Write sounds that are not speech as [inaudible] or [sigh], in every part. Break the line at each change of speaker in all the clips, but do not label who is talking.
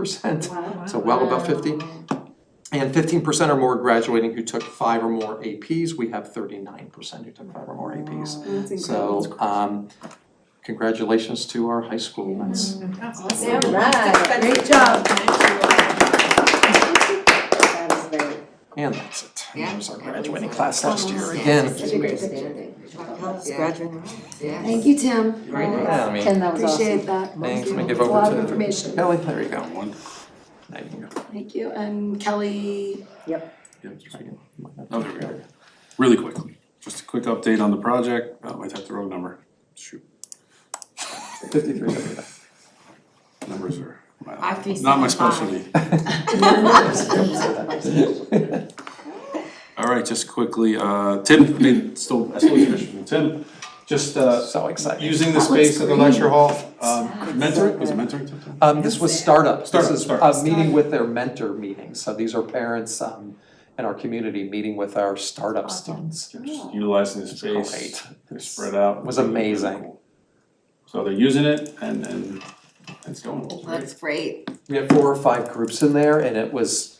percent.
Wow.
So well above fifty. And fifteen percent or more graduating who took five or more APs, we have thirty-nine percent who took five or more APs. So, um, congratulations to our high school, that's,
Awesome.
All right, great job.
That is very.
and that's it.
Yeah.
There's our graduating class last year
Yeah.
again.
Such a great standing. Yeah. Yes.
Thank you, Tim.
Very nice.
Yeah, I mean,
Tim, that was
Appreciate
awesome.
that.
thanks, let me give
It's a lot
over
of
to
information.
Kelly, there you go. Now you can go.
Thank you, and Kelly,
Try again.
Oh, there we go. Really quickly, just a quick update on the project. Oh, I typed the wrong number. Shoot,
Fifty-three, okay.
numbers are my-
Five, three,
not my
seven, five.
specialty. All right, just quickly, uh, Tim, I mean, still, I still finish with Tim. Just, uh,
so exciting.
using the space at the lecture hall, um, mentoring, was it mentoring? Tim?
Um, this was startup, this
Startup,
is
startup.
a meeting with their mentor meeting, so these are parents, um, in our community meeting with our startup students.
Just utilizing the
Great,
space, they're spread out.
It was amazing.
So they're using it and, and it's going well, right?
That's great.
we had four or five groups in there and it was,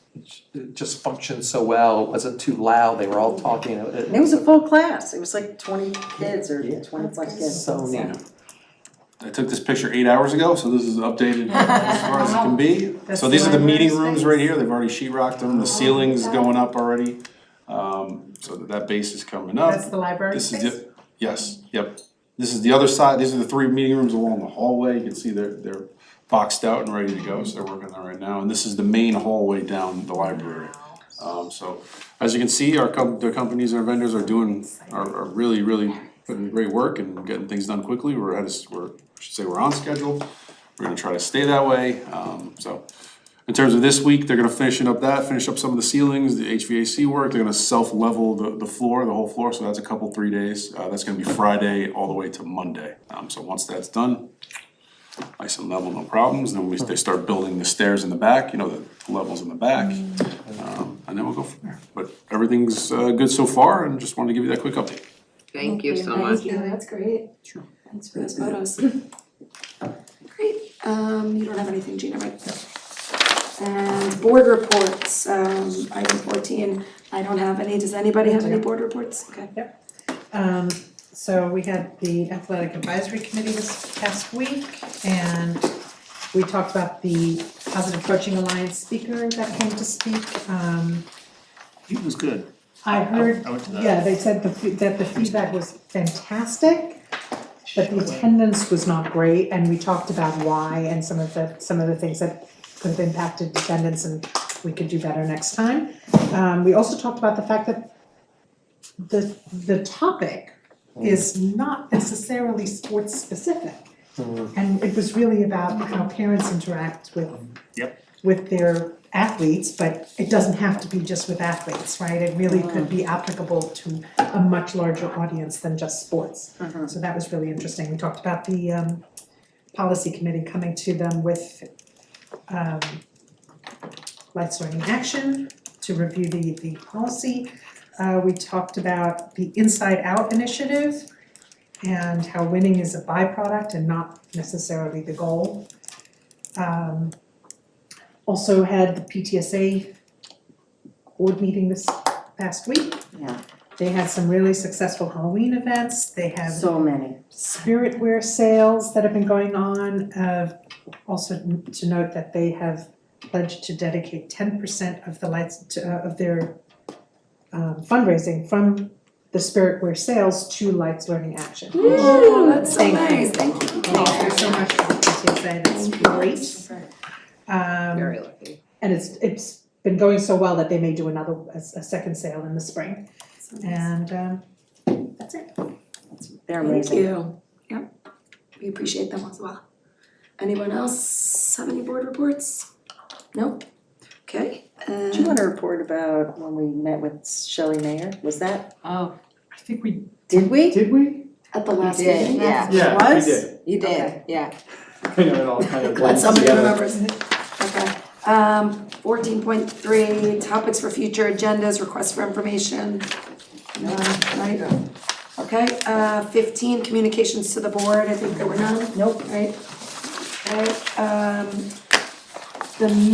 it just functioned so well, it wasn't too loud, they were all talking.
It was a full class, it was like twenty kids or
Yeah.
twenty-five kids.
So neat.
I took this picture eight hours ago, so this is updated as far as it can be. So these are the meeting rooms right here, they've already sheet rocked them, the ceiling's going up already. Um, so that- that base is coming up.
That's the library
This is
space?
the, yes, yep. This is the other side, these are the three meeting rooms along the hallway, you can see they're, they're boxed out and ready to go, so they're working on that right now. And this is the main hallway down the library. Um, so, as you can see, our com- the companies, our vendors are doing, are, are really, really putting in great work and getting things done quickly. We're at, a s- we're, I should say we're on schedule, we're gonna try to stay that way, um, so. In terms of this week, they're gonna finish it up that, finish up some of the ceilings, the HVAC work, they're gonna self-level the, the floor, the whole floor, so that's a couple, three days. Uh, that's gonna be Friday all the way to Monday, um, so once that's done, nice and level, no problems, then we, they start building the stairs in the back, you know, the levels in the back. Um, and then we'll go from there, but everything's, uh, good so far, and just wanted to give you that quick update.
Thank you so much.
Thank you, that's great.
Sure.
Thanks for those photos. [laughs] Great, um, you don't have anything, Gina, right? And board reports, um, item fourteen, I don't have any, does anybody have any board reports? Okay.
Um, so we had the athletic advisory committee this past week and we talked about the Positive Coaching Alliance speaker that came to speak. Um,
He was good.
I heard,
I went to that.
yeah, they said the, fe- that the feedback was fantastic, but the attendance was not great and we talked about why and some of the, some of the things that could have impacted attendance and we could do better next time. Um, we also talked about the fact that the, the topic is not necessarily sports specific. And it was really about how parents interact with
Yep.
with their athletes, but it doesn't have to be just with athletes, right? It really could be applicable to a much larger audience than just sports. Uh, So that was really interesting. We talked about the um policy committee coming to them with um life learning action to review the the policy. Uh, we talked about the inside out initiative and how winning is a byproduct and not necessarily the goal. Um, also had the PTSA board meeting this past week.
Yeah.
They had some really successful Halloween events, they have
So many.
spirit wear sales that have been going on. Uh, also to note that they have pledged to dedicate ten percent of the lights to, uh, of their um, fundraising from the spirit wear sales to Lights Learning Action.
Ooh, that's so
Thank you.
nice, thank you.
Thank you so much for participating. That's great. Um,
Very lucky.
and it's it's been going so well that they may do another a, a second sale in the spring. And um, that's it.
They're
Thank
amazing.
you, yep, we appreciate them as well. Anyone else have any board reports? No? Okay,
Do you
um,
wanna report about when we met with Shelley Mayer? Was that,
Oh,
I think we
did we?
Did we?
at the last
you did,
meeting,
yeah.
Yeah, we
Was?
did.
You did,
Okay.
yeah.
I know it all kind
Glad
of blends
somebody
together.
remembers. Okay, um, fourteen point three, topics for future agendas, requests for information. None, right? Okay, uh, fifteen, communications to the board, I think there were none,
Nope.
right? Right, um, the